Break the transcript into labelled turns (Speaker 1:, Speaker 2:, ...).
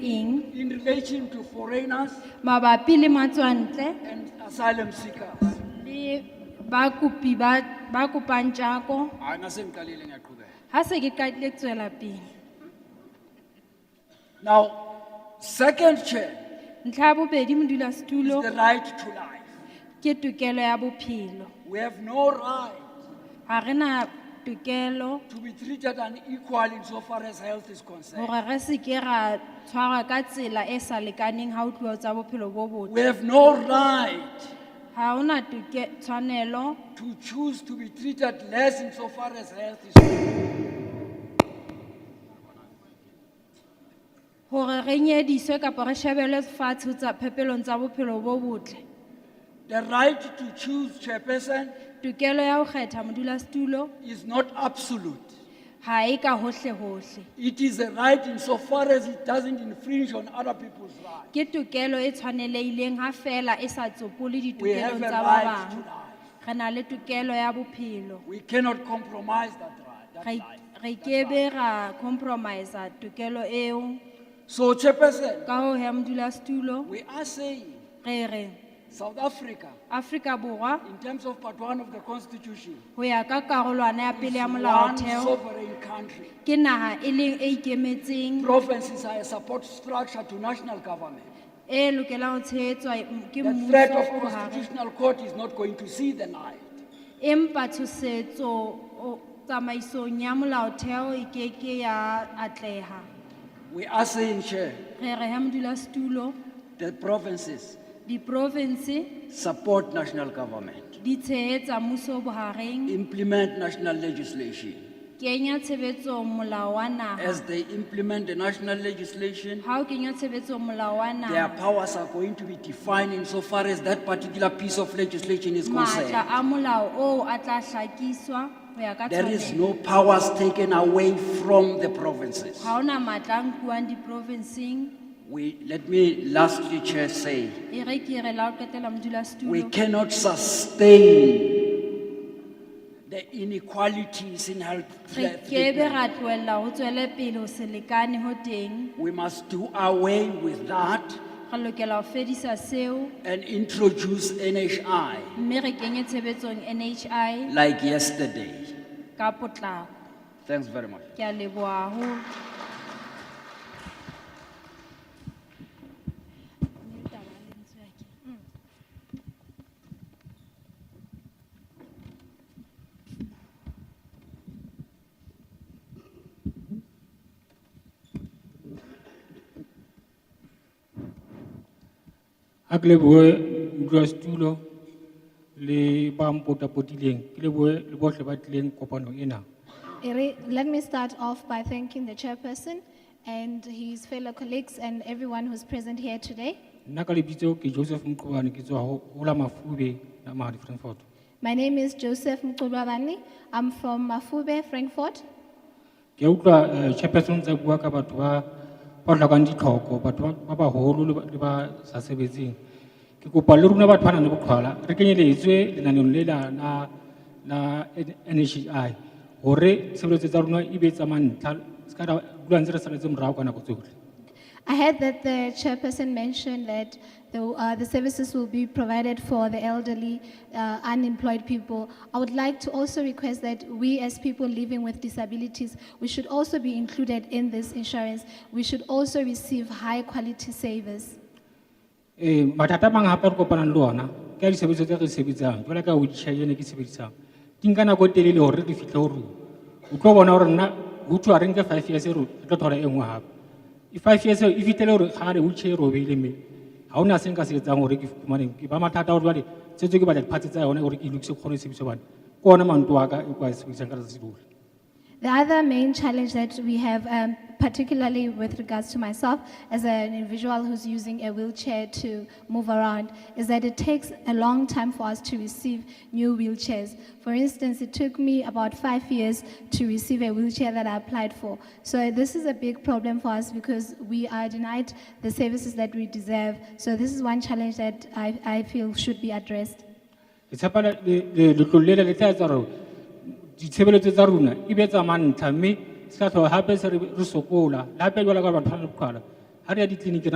Speaker 1: relation to foreigners
Speaker 2: mabapi le matswantle
Speaker 1: and asylum seekers.
Speaker 2: le bakopi ba ba kopang jako
Speaker 1: Hayi nase ngiqalile ngiyaqhubeka.
Speaker 2: ha se ke qadile tswela pele
Speaker 1: Now, second chair
Speaker 2: ntlha ya bobedi
Speaker 1: is
Speaker 2: modulasetulo
Speaker 1: the right to life.
Speaker 2: ke tokelo ya bophelo
Speaker 1: We have no right
Speaker 2: ga re na tokelo
Speaker 1: to be treated unequal insofar as health is concerned.
Speaker 2: gore re seke ra tshwarwa ka tsela e sa lekaneng ga o tliwa tsa bophelo bo botle
Speaker 1: We have no right
Speaker 2: ga o na toke- tshwanelo
Speaker 1: to choose to be treated less insofar as health is concerned.
Speaker 2: gore re nyediswe kapa re shebelwe fatshe tsa- phepelong tsa bophelo bo botle
Speaker 1: The right to choose chairperson
Speaker 2: tokelo ya go kgetha modulasetulo
Speaker 1: is not absolute.
Speaker 2: ga e ka gotlhe-gotlhe
Speaker 1: It is a right insofar as it doesn't infringe on other people's rights.
Speaker 2: ke tokelo e tshwaneleileng ga fela e sa tsopole
Speaker 1: We have a
Speaker 2: ditokelong tsa ba
Speaker 1: right to
Speaker 2: bangwe
Speaker 1: life.
Speaker 2: re na le tokelo ya bophelo
Speaker 1: We cannot compromise that right. that
Speaker 2: Re-
Speaker 1: life.
Speaker 2: re kebe ra compromisea tokelo eo
Speaker 1: So, chairperson,
Speaker 2: ka go ya modulasetulo
Speaker 1: we are saying
Speaker 2: re re
Speaker 1: South Africa,
Speaker 2: aforika borwa
Speaker 1: in terms of part one of the Constitution,
Speaker 2: go ya ka karolwana ya pele ya
Speaker 1: is one
Speaker 2: molaotheo
Speaker 1: sovereign country.
Speaker 2: ke naga e leng e ikemetseng
Speaker 1: Provinces are a support structure to national government.
Speaker 2: e lokelang go tshegetswa ke
Speaker 1: The threat
Speaker 2: mmuso
Speaker 1: of
Speaker 2: o gare
Speaker 1: constitutional court is not going to see the light.
Speaker 2: empa tshosetso o- tsamaisong ya molaotheo e keke ya atlega
Speaker 1: We are saying, Chair,
Speaker 2: re re ya modulasetulo
Speaker 1: the provinces
Speaker 2: diprovense
Speaker 1: support national government,
Speaker 2: di tshehetsa mmuso bohareng
Speaker 1: implement national legislation.
Speaker 2: kenya tshebetsong molao wa naha
Speaker 1: As they implement the national legislation,
Speaker 2: ha o kenya tshebetsong molao wa
Speaker 1: their
Speaker 2: naha
Speaker 1: powers are going to be defined insofar as that particular piece of legislation is
Speaker 2: maatla
Speaker 1: concerned.
Speaker 2: a molao oo a tla hlakiswa ho ya ka
Speaker 1: There is
Speaker 2: tshwanelo
Speaker 1: no powers taken away from the provinces.
Speaker 2: ha ona maatla a nkuwang diprovinceng
Speaker 1: We, let me lastly, Chair, say,
Speaker 2: e re ke re la o qetela
Speaker 1: We
Speaker 2: modulasetulo
Speaker 1: cannot sustain the inequalities in health
Speaker 2: re
Speaker 1: care
Speaker 2: kebe
Speaker 1: treatment.
Speaker 2: ra tlohella ho tswele pele ho se lekane ho teng
Speaker 1: We must do away with that
Speaker 2: re lokela ho fedisa seo
Speaker 1: and introduce NHI
Speaker 2: mme re kenye tshebetsong nhi
Speaker 1: like yesterday.
Speaker 2: ka potlako
Speaker 1: Thanks very much.
Speaker 2: ke a leboha haholo
Speaker 3: a ke leboe modulasetulo le ba mpotapotileng ke leboe le bohle ba tlileng kopano ena
Speaker 4: Ere- Let me start off by thanking the chairperson and his fellow colleagues and everyone who's present here today.
Speaker 3: nna ka lebitso ke joseph mqobane ke tswa ho ho la mafube la mahadi frankfort
Speaker 4: My name is Joseph Mkulwabani. I'm from Mafube, Frankfurt.
Speaker 3: ke a utlwa eh, chairperson tsa bua ka batho ba ba hlokang ditlhoko batho ba- ba baholo le ba- le ba sa sebetseng ke kopa le rona batho ba nang le boqhwala re kenyeletswe lenaneong le la la nhi hore tshebeletso tsa rona e be tsamantlha se ka ra dula ntse re saletse morao ka nako tsohle
Speaker 4: I heard that the chairperson mentioned that the, uh, the services will be provided for the elderly, uh, unemployed people. I would like to also request that we, as people living with disabilities, we should also be included in this insurance. We should also receive high quality savers.
Speaker 3: ee Eh, mathata a mang gape re kopanang le ona ka disebediswa tse re di sebetsang jala ka wheelchair ene ke sebedisang di nka nako e telele gore re di fitlhe go rona o tlo bona gore nna ho thwe ha re nke five years e ro- re tlo thola e nngwe gape e five years eo e fitlhele gore ga re wheelchair e robeile mme ga o na se nka se etsang gore ke fumaneng ke ba mathata gore jale setse ke batla diphatse tsa yone gore ke lokise kgone e sebedisa bane ke ona manto wa ka e kwa sebedisang ka letsatsi lohle
Speaker 4: The other main challenge that we have, um, particularly with regards to myself as an individual who's using a wheelchair to move around, is that it takes a long time for us to receive new wheelchairs. For instance, it took me about five years to receive a wheelchair that I applied for. So this is a big problem for us because we are denied the services that we deserve. So this is one challenge that I, I feel should be addressed.
Speaker 3: ke tshepa le- le- le- letlole lela le tla etsa gore ditshebeletso tsa rona e be tsamantlha mme se ka tlhola gape se re re sokola le gape jala ka batho ba le boqhwala ga re ya ditleliniki